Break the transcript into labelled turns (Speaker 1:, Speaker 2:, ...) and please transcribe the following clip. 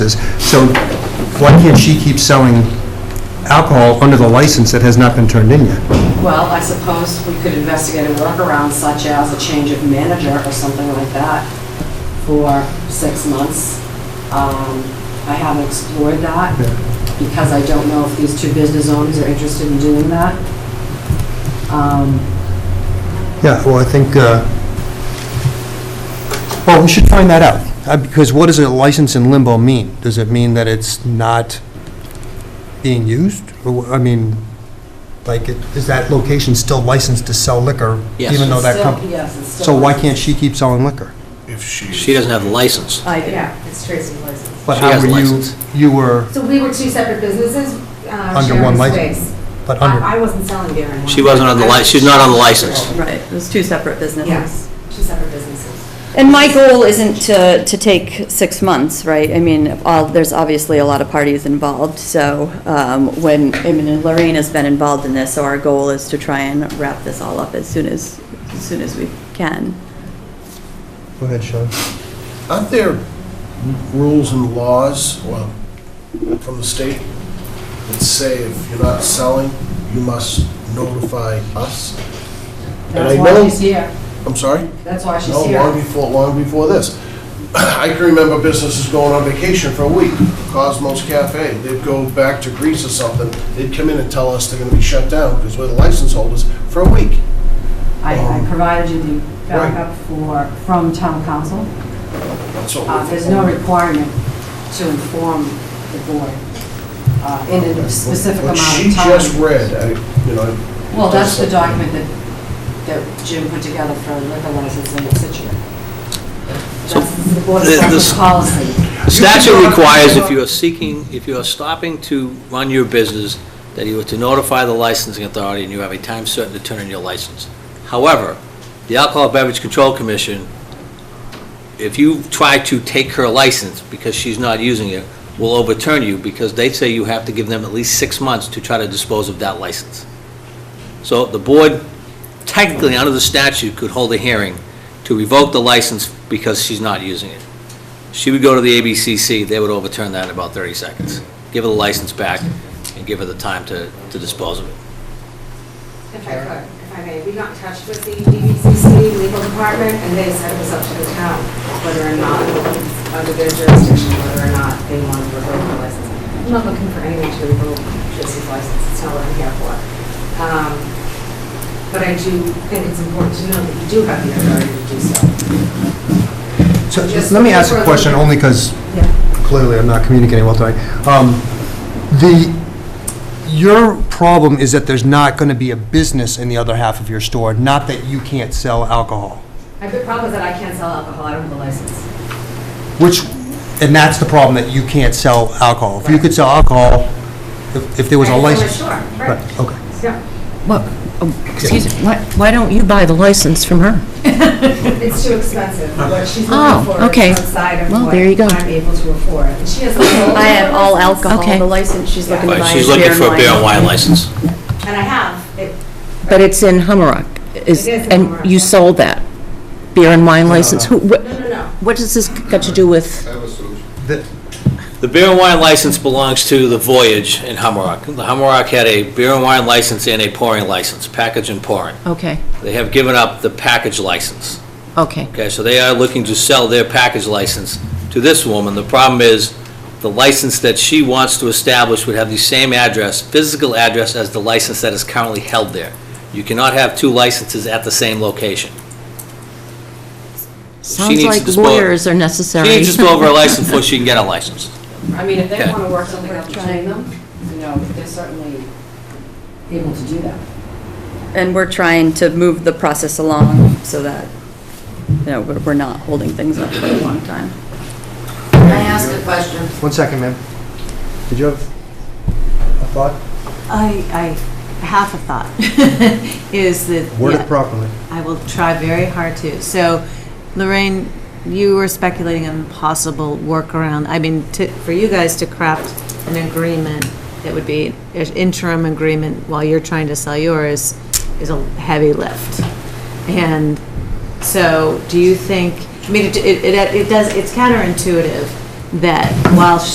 Speaker 1: licenses. So why can't she keep selling alcohol under the license that has not been turned in yet?
Speaker 2: Well, I suppose we could investigate a workaround such as a change of manager or something like that for six months. Um, I haven't explored that
Speaker 1: Yeah.
Speaker 2: because I don't know if these two business owners are interested in doing that. Um,
Speaker 1: Yeah, well, I think, uh, well, we should find that out, Uh, because what does a license in limbo mean? Does it mean that it's not being used? Or, wh- I mean, like, it- is that location still licensed to sell liquor?
Speaker 3: Yes.
Speaker 1: Even though
Speaker 2: it's
Speaker 1: that
Speaker 2: still-
Speaker 1: company,
Speaker 2: Yes, it's still.
Speaker 1: so why can't she keep selling liquor?
Speaker 4: If
Speaker 3: She doesn't have the license.
Speaker 2: I do.
Speaker 5: Yeah, it's Tracy's license.
Speaker 1: But
Speaker 3: She
Speaker 1: how
Speaker 3: has
Speaker 1: were you-
Speaker 3: license.
Speaker 1: You were,
Speaker 5: So we were two separate businesses uh,
Speaker 1: Under
Speaker 5: sharing
Speaker 1: one
Speaker 5: the
Speaker 1: license.
Speaker 5: space.
Speaker 1: but under,
Speaker 5: I I wasn't selling beer and wine.
Speaker 3: She wasn't on the li, she's not on the license.
Speaker 6: Right, it was two separate
Speaker 5: Yes,
Speaker 6: businesses.
Speaker 5: two separate businesses.
Speaker 6: And my goal isn't to, to take six months, right? I mean, all, there's obviously a lot of parties involved, so, um, when, I mean, and Lorraine has been involved in this, so our goal is to try and wrap this all up as soon as, as soon as we can.
Speaker 1: go ahead, Sean.
Speaker 4: Aren't there rules and laws, well, from the state that say if you're not selling, you must notify us? And I
Speaker 2: That's why
Speaker 4: know-
Speaker 2: she's here.
Speaker 4: I'm sorry?
Speaker 2: That's why she's
Speaker 4: No, long
Speaker 2: here.
Speaker 4: before, long before this. I can remember businesses going on vacation for a week, Cosmos Cafe, they'd go back to Greece or something, they'd come in and tell us they're gonna be shut down because we're the license holders for a week.
Speaker 2: I, I provided you the
Speaker 4: Oh. Right.
Speaker 2: backup for, from town council.
Speaker 4: That's what
Speaker 2: Uh,
Speaker 4: we're-
Speaker 2: There's no requirement to inform the board uh, in a specific amount
Speaker 4: What
Speaker 2: of
Speaker 4: she
Speaker 2: time.
Speaker 4: just read, I, you know.
Speaker 2: Well, that's the
Speaker 4: does-
Speaker 2: document that, that Jim put together for liquor licensing in Situate.
Speaker 3: So
Speaker 2: That's the board of
Speaker 3: the-
Speaker 2: selectmen's
Speaker 3: this-
Speaker 2: policy.
Speaker 3: Statute requires if you are seeking, if you are stopping to run your business, that you are to notify the licensing authority and you have a time certain to turn in your license. However, the Alcohol Beverage Control Commission, if you try to take her license because she's not using it, will overturn you because they say you have to give them at least six months to try to dispose of that license. So the board technically, under the statute, could hold a hearing to revoke the license because she's not using it. She would go to the ABCC, they would overturn that in about 30 seconds, give her the license back, and give her the time to, to dispose of it.
Speaker 5: If I could, if I may, we got in touch with the DVCC legal department, and they said it was up to the town whether or not, under their jurisdiction, whether or not they wanted to revoke the license. I'm not looking for anyone to revoke Tracy's license, it's not what I'm here for. Um, But I do think it's important to know that you do have the authority to do so.
Speaker 1: So,
Speaker 5: Just
Speaker 1: let me ask a
Speaker 5: for-
Speaker 1: question, only because clearly I'm not communicating well tonight. Um, The, your problem is that there's not going to be a business in the other half of your store, not that you can't sell alcohol,
Speaker 5: My big problem is that I can't sell alcohol, I don't have a license.
Speaker 1: which, and that's the problem, that you can't sell alcohol. If you could sell alcohol, if- if there was a license.
Speaker 5: Sure,
Speaker 1: Right,
Speaker 5: right.
Speaker 1: okay.
Speaker 5: Yeah,
Speaker 7: Well, oh, excuse me, why why don't you buy the license from her?
Speaker 5: it's too expensive, what she's
Speaker 7: Oh,
Speaker 5: looking for
Speaker 7: okay.
Speaker 5: is outside of
Speaker 7: Well,
Speaker 5: what
Speaker 7: there you go.
Speaker 5: I'm able to afford. And she has a whole...
Speaker 6: I have all alcohol,
Speaker 7: Okay.
Speaker 6: the license she's looking to
Speaker 3: But
Speaker 6: buy
Speaker 3: she's
Speaker 6: is
Speaker 3: looking
Speaker 6: beer and
Speaker 3: for a beer and
Speaker 6: wine.
Speaker 3: wine license.
Speaker 5: And I have, it,
Speaker 7: But it's in Hummerock.
Speaker 5: It is in Hummerock.
Speaker 7: And you sold that beer and wine license? Who? wh-
Speaker 5: no, no, no.
Speaker 7: What does this got to do with?
Speaker 1: The-
Speaker 3: The beer and wine license belongs to the Voyage in Hummerock. The Hummerock had a beer and wine license and a pouring license, package and pouring.
Speaker 7: Okay,
Speaker 3: They have given up the package license.
Speaker 7: okay.
Speaker 3: Okay, so they are looking to sell their package license to this woman. The problem is, the license that she wants to establish would have the same address, physical address, as the license that is currently held there. You cannot have two licenses at the same location.
Speaker 7: Sounds
Speaker 3: needs to
Speaker 7: like
Speaker 3: dispose-
Speaker 7: lawyers are necessary.
Speaker 3: She needs to go over her license before she can get a license.
Speaker 2: I mean, if they
Speaker 3: Okay.
Speaker 2: want to work something out between them, you know, they're certainly able to do that.
Speaker 6: And we're trying to move the process along so that, you know, we're we're not holding things up for a long time.
Speaker 2: Can I ask a question?
Speaker 1: One second, ma'am. Did you have a thought?
Speaker 8: I, I, half a thought is that.
Speaker 1: Word it properly.
Speaker 8: I will try very hard to. So Lorraine, you were speculating on possible workaround, I mean, to, for you guys to craft an agreement that would be an interim agreement while you're trying to sell yours is a heavy lift. And so do you think, I mean, it, it, it does, it's counterintuitive that while